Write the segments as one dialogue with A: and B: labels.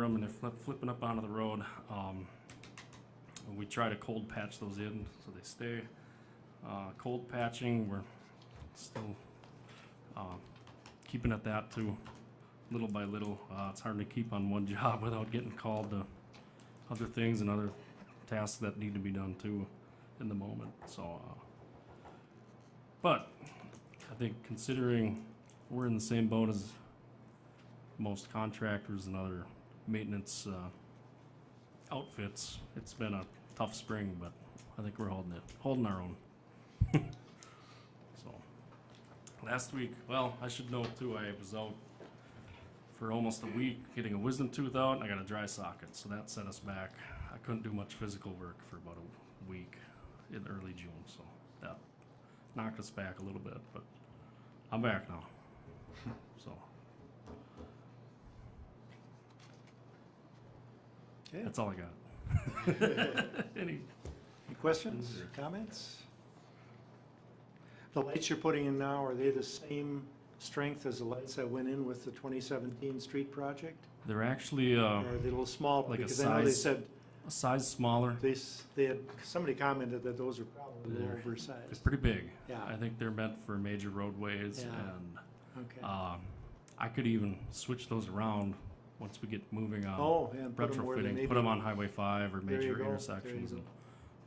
A: them and they're flip, flipping up onto the road. Um, and we try to cold patch those in so they stay. Uh, cold patching, we're still uh, keeping at that too, little by little. Uh, it's hard to keep on one job without getting called to other things and other tasks that need to be done too in the moment. So, uh, but I think considering we're in the same boat as most contractors and other maintenance uh, outfits, it's been a tough spring, but I think we're holding it, holding our own. so, last week, well, I should note too, I was out for almost a week getting a wisdom tooth out, and I got a dry socket, so that set us back. I couldn't do much physical work for about a week in early June, so that knocked us back a little bit, but I'm back now. So
B: Okay,
A: that's all I got. Any
B: any questions, comments? The lights you're putting in now, are they the same strength as the lights that went in with the 2017 street project?
A: They're actually uh,
B: Or are they a little small?
A: Like a
B: Because I know they
A: size-
B: said,
A: a size smaller.
B: they, s- they had, somebody commented that those are probably a little
A: They're- They're
B: oversized.
A: pretty big.
B: Yeah.
A: I think they're meant for major roadways,
B: Yeah.
A: and
B: Okay.
A: um, I could even switch those around once we get moving on
B: Oh, and put them where
A: um,
B: they
A: retrofitting.
B: maybe.
A: Put them on Highway Five or
B: There you
A: major
B: go, there you
A: intersections,
B: go.
A: and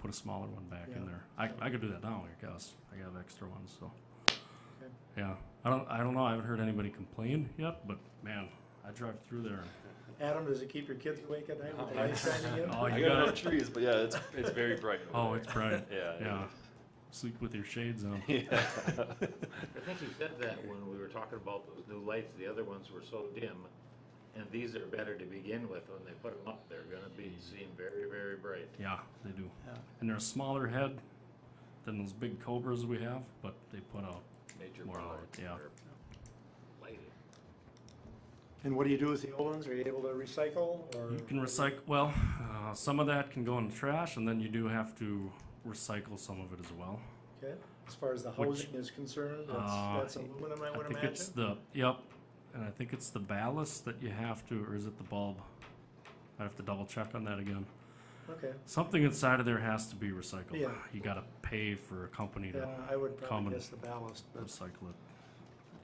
A: put a smaller one back
B: Yeah.
A: in there. I, I could do that now, I guess. I have extra ones, so.
B: Okay.
A: Yeah, I don't I don't know. I haven't heard anybody complain yet, but man, I drive through there.
B: Adam, does it keep your kids awake at night with the
C: Oh,
B: lights shining in?
A: Oh,
C: I
A: you
C: got
A: got
C: enough
A: it.
C: trees, but yeah, it's it's very bright.
A: Oh,
C: over
A: it's bright.
C: there.
A: yeah, sleep with your shades on.
C: yeah. yeah.
D: I think you said that when we were talking about those new lights, the other ones were so dim, and these are better to begin with, when they put them up, they're gonna be seen very, very bright.
A: Yeah, they do.
B: Yeah.
A: And they're a smaller head than those big cobras we have, but they put out.
D: Major
A: More
D: power.
A: light, yeah.
D: or Lighting.
B: And what do you do with the old ones? Are you able to recycle or?
A: You can recycle. Well, uh, some of that can go in the trash, and then you do have to recycle some of it as well.
B: Okay, as far as the
A: Which-
B: housing is concerned, that's,
A: Uh,
B: that's aluminum, I
A: I
B: would
A: think
B: imagine?
A: it's the yep, and I think it's the ballast that you have to, or is it the bulb? I have to double check on that again.
B: Okay,
A: Something inside of there has to be recycled.
B: Yeah.
A: You got to pay for a company to
B: yeah, I would
A: common-
B: probably guess the ballast, but
A: recycle it.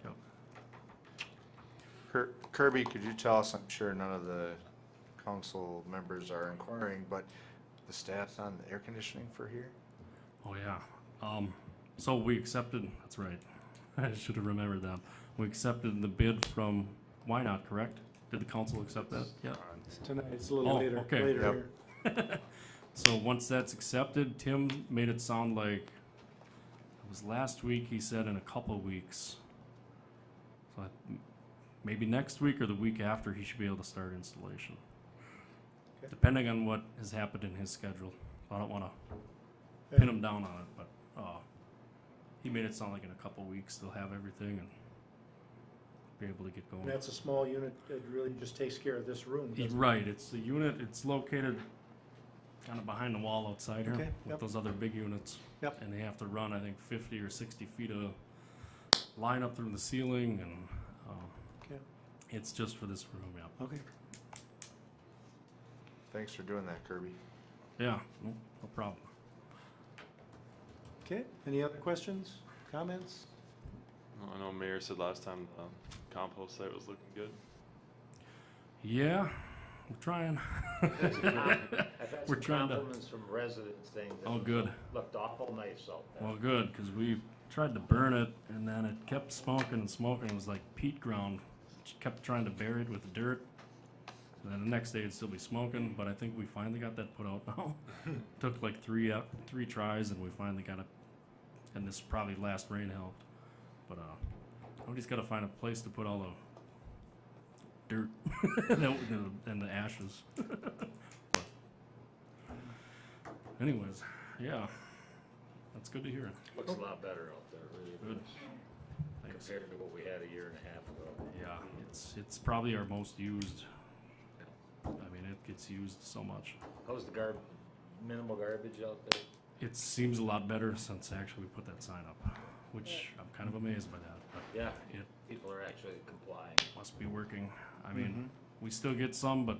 A: Yep.
E: Kir- Kirby, could you tell us, I'm sure none of the council members are inquiring, but the stats on the air conditioning for here?
A: Oh yeah. Um, so we accepted. That's right. I should have remembered that. We accepted the bid from Why Not, correct? Did the council accept that? Yeah.
B: tonight, it's a little
A: Oh,
B: later,
A: okay.
B: later
E: Yep.
B: here.
A: So once that's accepted, Tim made it sound like it was last week. He said in a couple weeks. So I, maybe next week or the week after, he should be able to start installation.
B: Okay.
A: Depending on what has happened in his schedule, I don't want to pin him down on it, but uh, he made it sound like in a couple weeks they'll have everything and be able to get
B: And
A: going.
B: that's a small unit, it really just takes care of this room,
A: Y-
B: doesn't it?
A: Right, it's the unit, it's located kind of behind the wall outside here
B: Okay,
A: with
B: yep.
A: those other big units.
B: Yep.
A: And they have to run, I think, 50 or 60 feet of line up through the ceiling, and uh,
B: Okay.
A: it's just for this room. Yeah.
B: Okay.
E: Thanks for doing that, Kirby.
A: Yeah, no, no problem.
B: Okay, any other questions, comments?
C: Well, I know Mayor said last time um, compost site was looking good.
A: Yeah, I'm trying.
D: I've had
A: We're
D: some
A: trying to-
D: compliments from residents saying that
A: Oh,
D: it
A: good.
D: looked awful nice out there.
A: Well, good, because we tried to burn it, and then it kept smoking and smoking. It was like peat ground. Just kept trying to bury it with dirt. And then the next day, it'd still be smoking. But I think we finally got that put out now. Took like three up, three tries, and we finally got it. And this probably last rain helped. But uh, nobody's got to find a place to put all the dirt and the- and the ashes. But Anyways, yeah, that's good to hear.
D: Looks a lot better out there, really,
A: Good.
D: does,
A: Thanks.
D: compared to what we had a year and a half ago.
A: Yeah, it's it's probably our most used. I mean, it gets used so much.
D: How's the garb, minimal garbage out there?
A: It seems a lot better since actually we put that sign up, which I'm kind of amazed by that. But
D: Yeah,
A: it
D: people are actually complying.
A: must be working. I mean, we still get some, but